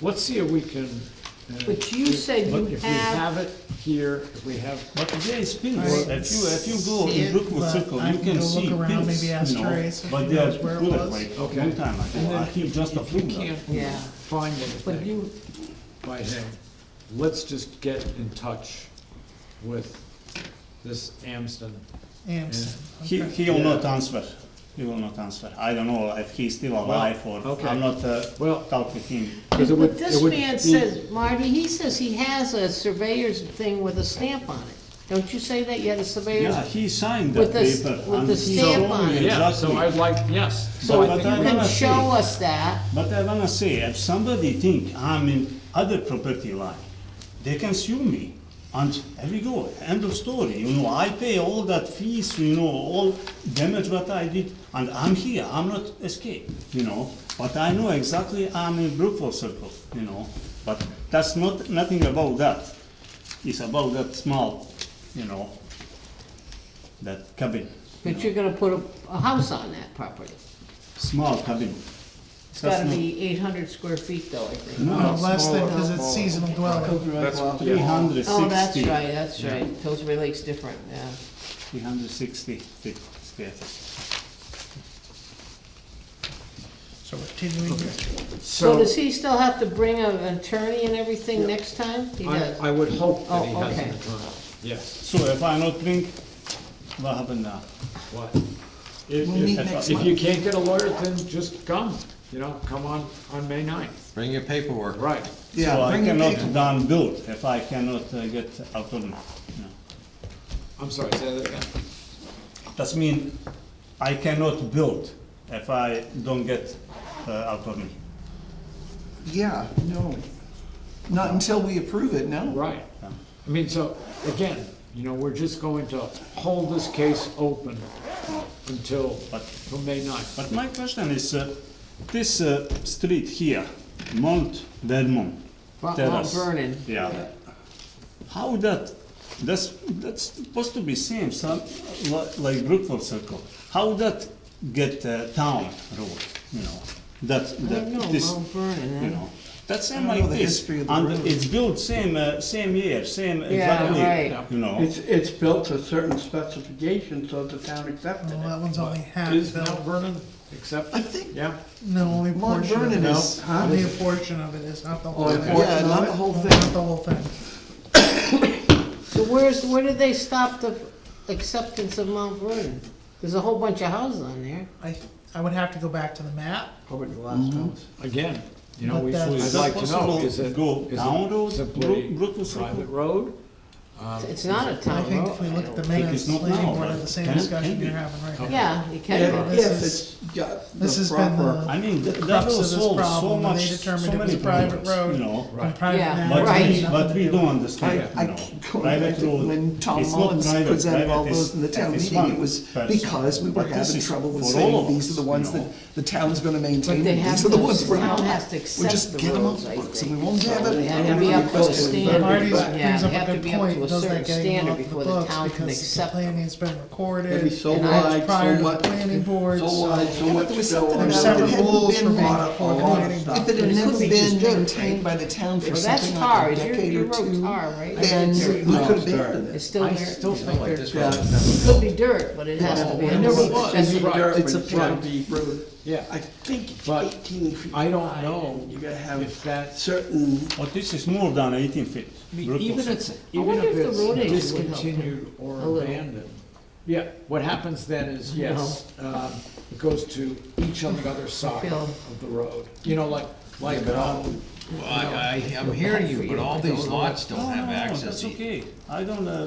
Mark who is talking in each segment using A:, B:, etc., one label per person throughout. A: Let's see if we can. uh,
B: But you said
A: look,
B: you
A: If we
B: have-
A: have it here, if we have,
C: But today is pink.
D: Right.
C: If you, if you go
D: See
C: in
D: it,
C: Brookwood
D: but
C: Circle,
D: I
C: you
D: can
C: can
D: go look
C: see
D: around,
C: pinks,
D: maybe ask
C: you know,
D: Grace if
C: but
D: she
C: they are
D: knows where it
C: bullet,
D: was.
C: like,
A: Okay.
C: long time ago, I keep just a few
A: uh, we
C: left.
A: can't
B: Yeah.
A: find
B: But
A: anything
B: you,
A: by him, let's just get in touch with this Amston.
D: Amson,
C: He,
D: okay.
C: he will
A: Yeah.
C: not answer, he will not answer, I don't know if he's still alive or,
A: okay.
C: I'm not, uh,
A: Well-
C: talk with him.
A: 'cause it would-
B: but this
A: it would
B: man
A: be-
B: says, Marty, he says he has a surveyor's thing with a stamp on it. Don't you say that you had a surveyor's?
C: Yeah, he signed
B: With
C: that
B: the s-
C: paper.
B: with
C: and
B: the
C: he
B: stamp
C: showed
B: on
C: me
B: it.
A: Yeah, so I'd
C: Exactly,
A: like, yes, so
C: But-
A: I
C: but
A: think
C: I
B: You
A: we
C: don't-
B: can
C: wanna see.
B: show us that.
C: but I wanna say, if somebody think I'm in other property line, they can sue me. And there we go, end of story, you know, I pay all that fees, you know, all damage what I did, and I'm here, I'm not escape, you know? But I know exactly I'm in Brookfield Circle, you know, but that's not, nothing about that. It's about that small, you know, that cabin. you
B: But you're gonna put a, a house on that property.
C: small cabin.
B: It's
C: That's
B: gotta
C: not-
B: be eight hundred square feet though, I think.
D: No,
A: No,
D: less than,
A: smaller,
D: cause it's
A: smaller.
D: seasonal dwelling.
A: That's-
C: Three hundred sixty.
B: Oh, that's right, that's right. Pillsbury Lake's different, yeah.
C: Three hundred sixty feet square feet.
D: So we're continuing this.
B: So
A: so,
B: does he still have to bring a- an attorney and everything next time? He
A: I,
B: does.
A: I would hope that he
B: Oh,
A: has
B: okay.
A: an attorney, yes,
C: So if I not drink, what happened now?
A: what? If,
D: We'll meet
A: if,
D: next
A: if
D: month.
A: you can't get a lawyer, then just come, you know, come on, on May ninth,
E: Bring your paperwork.
A: right.
C: So I
D: bring it
C: cannot
D: back.
C: down build if I cannot uh, get autonomy.
A: I'm sorry, say that again.
C: That's mean I cannot build if I don't get uh, autonomy.
F: Yeah, no. Not until we approve it, no.
A: Right. I mean, so, again, you know, we're just going to hold this case open until,
C: But-
A: till May ninth.
C: But my question is, uh, this uh, street here, Mount Vermont.
B: Mount
C: terrace.
B: Vernon.
C: Yeah. How that, that's, that's supposed to be same, some, li- like Brookfield Circle. How that get uh, town road, you know, that,
B: I
C: that,
B: don't know,
C: this,
B: Mount Vernon,
C: you
B: eh?
C: know. That's same
F: I don't know
C: like
F: the
C: this,
F: history of the road.
C: and it's built same, uh, same year, same exactly,
B: right.
C: you know.
G: It's, it's built to certain specifications, so the town accepted
D: Well,
F: Oh,
G: it.
D: that one's only half
A: Is Mount
D: built.
A: Vernon accept?
F: I think-
A: Yeah,
D: No, only a
F: Mount
D: portion of it
F: Vernon
D: is,
F: is- huh?
D: only a portion of it is, not the whole
G: Oh,
D: thing.
G: okay.
F: Yeah, not the whole
D: Not
F: thing.
D: the whole thing.
B: So where's, where did they stop the acceptance of Mount Vernon? There's a whole bunch of houses on there.
D: I, I would have to go back to the map.
F: Probably the last house.
A: again, you know,
D: But
A: we,
D: that's-
A: I'd
D: Is
C: that
A: like to know,
C: possible
A: is it,
C: go
A: is
C: down
A: it
C: road,
A: simply
C: Brook- Brookfield Circle?
A: private road? Um,
B: It's- It's not a
D: I
B: town
D: think if we look at
B: road.
D: the
C: think
D: minutes,
C: it's not
D: planning
C: now,
D: board had
C: but
D: the same
C: can-
D: discussion
C: can
D: you're
C: be.
D: having right now.
B: Yeah, you
D: Yeah.
B: can,
D: this
F: If
D: is-
F: it's got
D: This
F: the
D: has been
F: proper.
D: the
C: I mean, th- that
D: crux of
C: will
D: this
C: solve so
D: problem, when
C: much,
D: they
C: so
D: determined it was
C: many
D: private
C: problems,
D: road.
C: you know.
D: And private
B: Yeah,
D: land
C: But we,
D: had
B: Right.
D: nothing
C: but
D: to
C: we
D: do
C: don't
D: with it.
C: understand,
F: I
C: you know.
F: keep going back
C: Private
F: to
C: road,
F: when Tom
C: it's not
F: Mullins
C: private,
F: presented all
C: private
F: those
C: is-
F: in the town
C: is
F: meeting, it
C: one
F: was
C: person.
F: because we were
C: But this
F: having
C: is
F: trouble with
C: for all
F: saying,
C: of
F: these
C: us,
F: are the
C: you
F: ones
C: know.
F: that the town's gonna maintain,
B: But they
F: and
B: have
F: these are the
B: to-
F: ones we're
B: the town
F: not.
B: has to accept
F: We just
B: the
F: get them off
B: roads, I
F: the books, and we
B: think.
F: won't
B: So
F: have
B: they
F: it.
B: have
F: and
B: to be
F: we'll
B: up to a
F: request it.
B: standard.
D: Marty's
B: Yeah,
D: brings
B: they
D: up
B: have to
D: a good
B: be up to a certain
D: point, doesn't get
B: standard
D: them off
B: before
D: the
B: the
D: books
B: town can
D: because the
B: accept
D: planning's been
G: Maybe
D: recorded,
G: so
D: and I was
G: wide, so
D: prior to the
G: much-
D: planning board,
G: So
D: so
G: wide, so
F: was
G: much built
F: something
G: on
F: about
D: there's
G: it.
F: If
D: several
F: it hadn't
D: rules
F: been
D: for being,
F: bought
D: for
F: up,
D: planning board.
F: If it
B: But it
F: had
B: could
F: never
B: be
F: been
B: just dirt, right?
F: maintained by the town for
B: Well, that's
F: something like
B: tar,
F: a
B: Your-
F: decade
B: your
F: or
B: road's
F: two,
B: tar, right?
F: then
B: It's
F: we
B: dirt.
F: could
G: No,
F: have abandoned it.
B: It's still
A: I
B: there.
A: still
B: It's
A: think
B: like
A: like
B: dirt.
A: this
F: Yeah.
B: It could be dirt, but it has to be.
F: Yeah.
G: Oh,
B: on
F: It never
B: the-
F: was.
B: that's the-
A: Right.
F: It's a
A: Right.
F: county road.
A: Yeah.
F: I think
A: But
F: eighteen feet.
A: I don't
F: wide,
A: know
F: and You gotta
A: If
F: have
A: that's,
F: certain
C: But this is more than eighteen feet. Brook
A: even
C: also.
A: if,
B: I
A: even
B: wonder
A: if
B: if the road agent
A: it's
B: would help them
A: discontinued or
B: a little.
A: abandoned. Yeah, what happens then is, yes, um, it goes to each on the other side
B: feel-
A: of the road, you know, like, like, um,
E: Well, I, I, I'm hearing you, but all these lots don't
C: Oh, No, no,
E: have
C: no,
E: access.
C: That's
E: to-
C: okay, I don't, uh,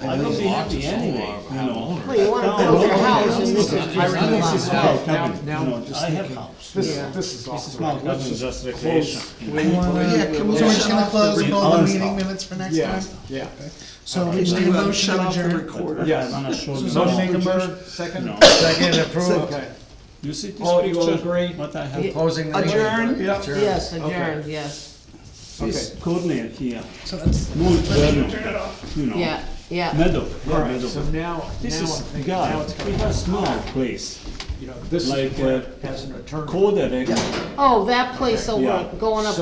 C: I
E: All
C: don't
E: these
C: be
E: lots
C: happy
E: are
C: anyway,
E: so, uh,
C: you
E: have
C: know.
E: owners.
B: Well, you wanna
C: No,
B: build your
C: no,
B: house
C: no,
B: and
C: no,
B: it's
C: no,
B: just
C: I
B: a
C: really-
B: lot.
C: This is
A: Now-
C: small cabin,
A: now-
C: you
A: now I'm
C: know,
A: just
C: I have
A: thinking.
C: house.
A: this,
B: Yeah.
A: this is
C: This
A: off
C: is
A: the record.
C: small
A: Let's
C: cabin, just
A: close-
C: recreation.
A: we-
D: Wanna-
F: Yeah, can we
D: So we're
F: shut
D: just gonna
F: off the
D: close
F: re-
D: all the
C: Unstop.
D: meeting minutes for next
A: Yeah,
D: time?
A: yeah.
D: So we
F: Did
D: need a
F: you uh,
D: motion
F: shut
D: to
F: off the
D: adjourn.
F: recorder?
A: Yes.
C: I'm not sure.
A: Somebody
C: now.
A: make a motion, second?
H: Second approved.
A: Okay.
C: You see this
A: All you will
C: picture,
A: agree?
C: what I have,
B: Yeah.
E: Closing the meeting.
F: Adjourn?
A: Yeah.
B: Yes, adjourned,
A: Okay.
B: yes.
C: this corner here,
D: So that's,
C: more journal, you know.
B: Yeah, yeah.
C: Meadow,
A: All
C: yeah,
A: right,
C: meadow.
A: so now,
C: This
A: now I'm
C: is,
A: thinking, now
C: guy,
A: it's
C: we
A: coming,
C: have small place,
A: you know, this is
C: like,
A: where,
C: uh,
A: as an attorney.
C: corner,
B: Oh, that place
C: Yeah.
B: over, going up